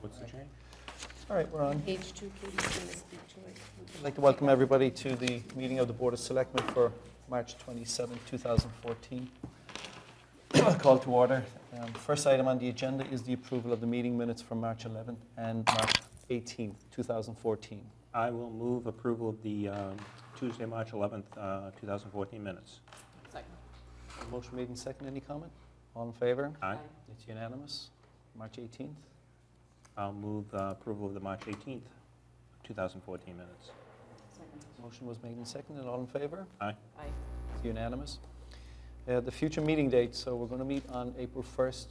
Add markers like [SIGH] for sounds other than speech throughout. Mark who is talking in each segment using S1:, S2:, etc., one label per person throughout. S1: What's the change?
S2: All right, we're on.
S3: Page two, please, you can speak to it.
S2: I'd like to welcome everybody to the meeting of the Board of Selectmen for March 27, 2014. [CLEARS THROAT] Call to order. Um, First item on the agenda is the approval of the meeting minutes from March 11 and March 18, 2014.
S1: I will move approval of the um, Tuesday, March 11th, uh, 2014 minutes.
S3: Second.
S2: Motion made and second. Any comment? All in favor?
S1: Aye.
S2: It's unanimous. March 18th.
S1: I'll move uh, approval of the March 18th, 2014 minutes.
S3: Second.
S2: Motion was made and seconded. All in favor?
S3: Aye.
S2: It's unanimous. Uh, The future meeting dates, so we're going to meet on April 1st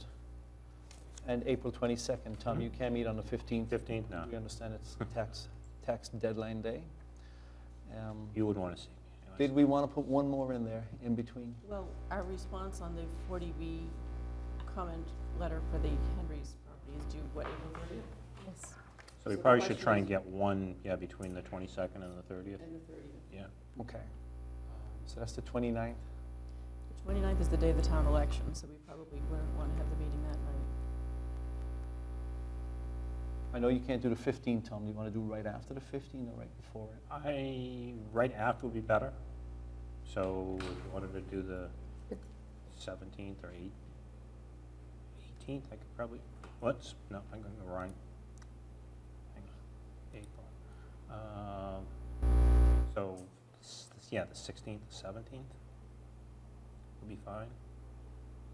S2: and April 22nd. Tom, you can't meet on the 15th.
S1: 15th, Hmm. no.
S2: We understand it's tax, tax deadline day. Um,
S1: You would want to see.
S2: Did we want to put one more in there, in between?
S4: Well, our response on the 40B comment letter for the Henry's property is due, what, April 30th?
S3: Yes,
S1: So we
S3: So the
S1: probably should
S3: question
S1: try and
S3: is-
S1: get one, yeah, between the 22nd and the 30th.
S3: and the thirtieth.
S1: Yeah.
S2: Okay. So that's the 29th.
S4: The 29th is the day of the town election, so we probably wouldn't want to have the meeting that night.
S2: I know you can't do the 15th, Tom. Do you want to do right after the 15th or right before it?
S1: I, right after would be better. So if you wanted to do the 17th or 8th, 18th, I could probably, what's, no, I'm going to go wrong. Hang on. April. Um, So, s- yeah, the 16th, 17th would be fine.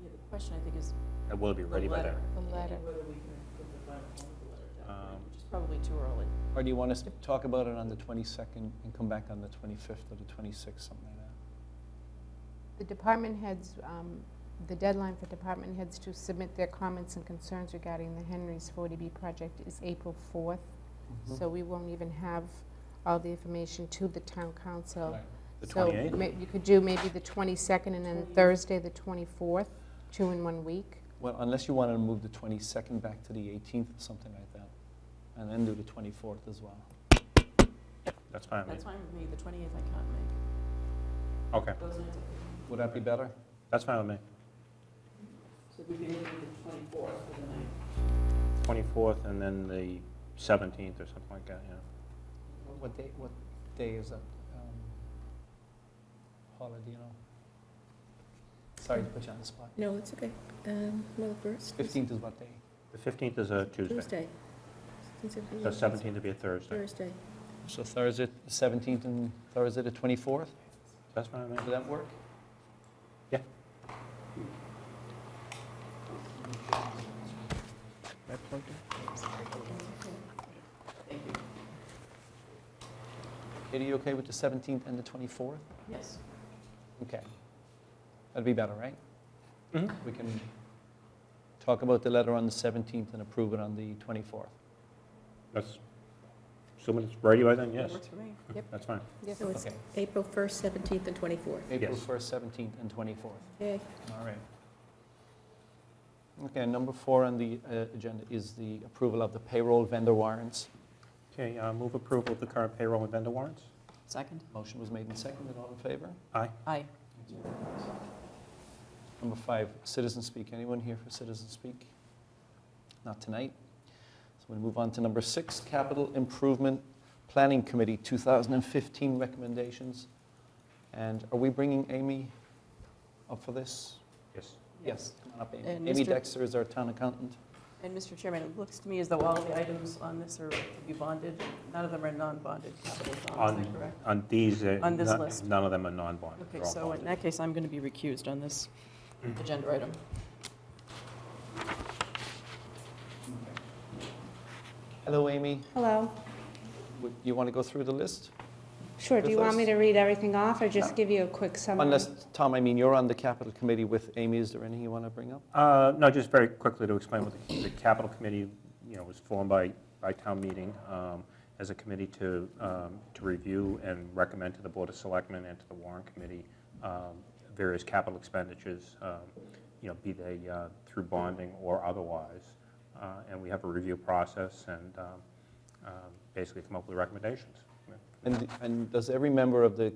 S4: Yeah, the question, I think, is
S1: I will be
S4: the
S1: ready by
S4: letter.
S1: then.
S3: The letter.
S4: Whether we can put the final form of the letter at that point,
S1: Um,
S4: which is probably too early.
S2: Or do you want us to talk about it on the 22nd and come back on the 25th or the 26th, something like that?
S3: The department heads, um, the deadline for department heads to submit their comments and concerns regarding the Henry's 40B project is April 4th,
S2: Mm-hmm.
S3: so we won't even have all the information to the town council.
S2: Right.
S1: The
S3: So
S1: 28th?
S3: ma- You could do maybe the 22nd and then Thursday, the 24th, two in one week.
S2: Well, unless you wanted to move the 22nd back to the 18th or something like that, and then do the 24th as well.
S1: That's fine. with
S4: That's
S1: me.
S4: fine with me, the 28th I can't make.
S1: Okay,
S4: Those nights I
S2: Would that be better?
S1: that's fine with me.
S4: So we could do the 24th for the night.
S1: 24th and then the 17th or something like that, yeah.
S2: What day, what day is that? Paula, do you know? Sorry to put you on the spot.
S5: No, it's okay. Um, Well, first, is
S2: 15th is what day?
S1: The 15th is a Tuesday.
S5: Tuesday. Since it'll be
S1: So
S5: a
S1: 17th would be a Thursday.
S5: Thursday.
S2: So Thursday, 17th and Thursday the 24th?
S1: That's fine with
S2: Would
S1: me.
S2: that work? Katie, you okay with the 17th and the 24th?
S4: Yes.
S2: Okay. That'd be better, right?
S1: Mhm.
S2: We can talk about the letter on the 17th and approve it on the 24th.
S1: That's, assuming it's ready by then, yes.
S4: Works for me.
S1: That's fine.
S3: Yes.
S5: So it's
S2: Okay.
S5: April 1st, 17th, and 24th.
S2: April
S1: Yes.
S2: 1st, 17th, and 24th.
S5: Okay.
S2: All right. Okay, number four on the uh, agenda is the approval of the payroll vendor warrants.
S1: Okay, uh, move approval of the current payroll and vendor warrants.
S4: Second?
S2: Motion was made and seconded, all in favor?
S1: Aye.
S4: Aye.
S2: Number five, citizen speak. Anyone here for citizen speak? Not tonight. So we move on to number six, Capital Improvement Planning Committee, 2015 recommendations. And are we bringing Amy up for this?
S1: Yes.
S2: Yes. come on up, Amy.
S4: And
S2: Amy
S4: Mr.
S2: Dexter is our town accountant.
S4: And Mr. Chairman, it looks to me as though all of the items on this are to be bonded. None of them are non-bonded capital bonds, is that
S1: On,
S4: correct?
S1: on these, uh,
S4: On this
S1: none-
S4: list.
S1: None of them are non-bonded.
S4: Okay,
S1: They're all
S4: so in
S1: bonded. Mm.
S4: that case, I'm going to be recused on this agenda item.
S2: Hello, Amy.
S3: Hello.
S2: Would- You want to go through the list?
S3: Sure, do you want me to read everything off or just
S2: No.
S3: give you a quick summary?
S2: Unless, Tom, I mean, you're on the Capital Committee with Amy. Is there anything you want to bring up?
S1: Uh, No, just very quickly to explain what the the capital committee, you know, was formed by, by town meeting um, as a committee to, um, to review and recommend to the Board of Selectmen and to the Warrant Committee um, various capital expenditures, um, you know, be they uh, through bonding or otherwise. Uh, And we have a review process and um, um, basically come up with recommendations.
S2: And, and does every member of the